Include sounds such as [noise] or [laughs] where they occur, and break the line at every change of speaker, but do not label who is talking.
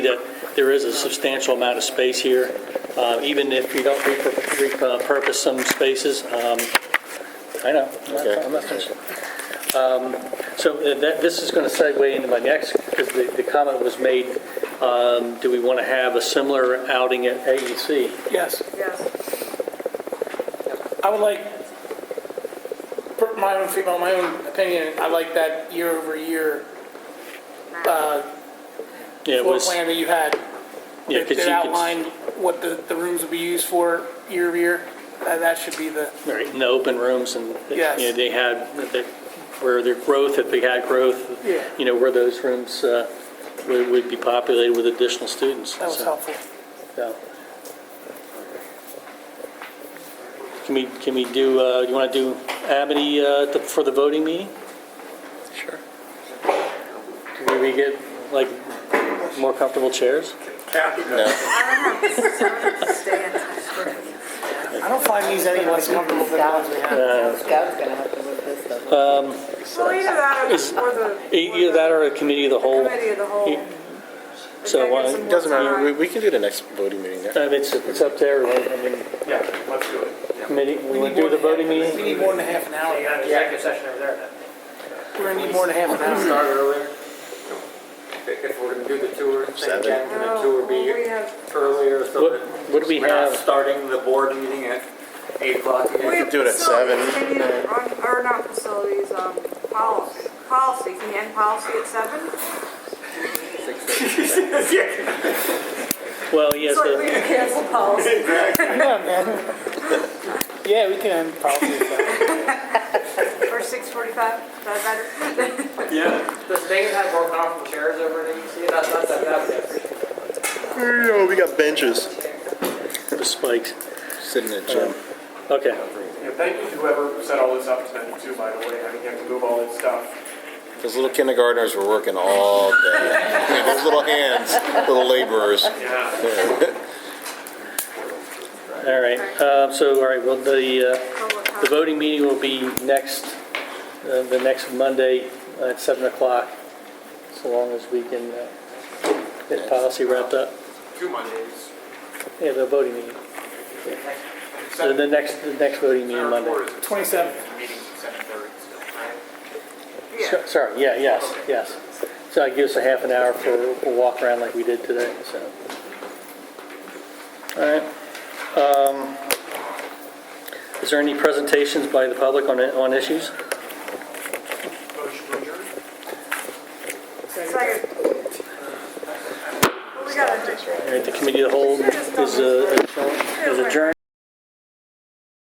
that there is a substantial amount of space here, uh, even if you don't repur- repurpose some spaces. um, I know, I'm not- I'm not finished. Um, So uh, that, this is going to segue into my next, because the, the comment was made, um, do we want to have a similar outing at E AEC?
Yes,
Yes,
I would like, for my own, fe- my own opinion, I like that year-over-year
Yeah, it
floor
was,
plan that you had.
yeah,
that-
'cause you
That
could-
outlined what the, the rooms would be used for year-over-year. That that should be the,
right, in the open rooms and, you
Yes.
know, they had, the- where their growth, if they had growth,
Yeah.
you know, where those rooms uh, would would be populated with additional students.
that was
So-
helpful.
Yeah. Can we, can we do, uh, you want to do Amity uh, the- for the voting meeting?
Sure.
Can we get, like, more comfortable chairs?
I don't find these any less comfortable than the ones we had.
Scout's gonna have to move this stuff.
[laughs]
well, either that or
It's-
the, or the.
E- Either that or a committee of the whole?
Committee of the whole.
You- So,
Okay,
uh,
some more
Doesn't matter,
time.
we, we can do the next voting meeting there.
I mean, It's, it's up to everyone, I mean,
Yeah, let's do it.
committee, we
We
want
need
to do
more
the
than half-
voting
We
meeting?
need more than half an
You
hour.
got an executive session over there
We're gonna need more than half an hour.
Start earlier? If if we're gonna do the tour, thing
Seven.
again, can the tour
No, well, we
be
have,
earlier so
What-
that?
what do we
we're not
have?
Starting the board meeting at eight o'clock
we
again?
have
do it at
facilities,
seven.
can you, on- or not facilities, um, policy, policy, can you end policy at seven?
Well, yes,
It's like
the-
we can cancel policy.
Yeah, we can, probably.
Or six forty-five, is that better? [laughs]
Yeah.
Does Dayton have more comfortable chairs over there, you see? That's, that's, that's.
Yo, we got benches.
the spikes,
Sitting in the gym.
okay.
Yeah, thank you to whoever set all this up tonight too, by the way. I mean, you have to move all this stuff.
Those little kindergartners were working all day. [laughs] Yeah, Those little hands, little laborers.
Yeah.
All right, uh, so, all right, well, the, uh, the voting meeting will be next, uh, the next Monday at 7 o'clock, so long as we can uh, get policy wrapped up.
Two Mondays.
Yeah, the voting meeting, the the next, the next voting meeting Monday.
Twenty-seven.
Meeting's at seven thirty still, right?
Yeah,
So- Sorry, yeah, yes, yes. So that gives us a half an hour for a walk around like we did today, so. All right. Um, Is there any presentations by the public on, on issues?
Motion to adjourn?
second. Well, we gotta,
All right, the committee of the whole is uh, is adjourned.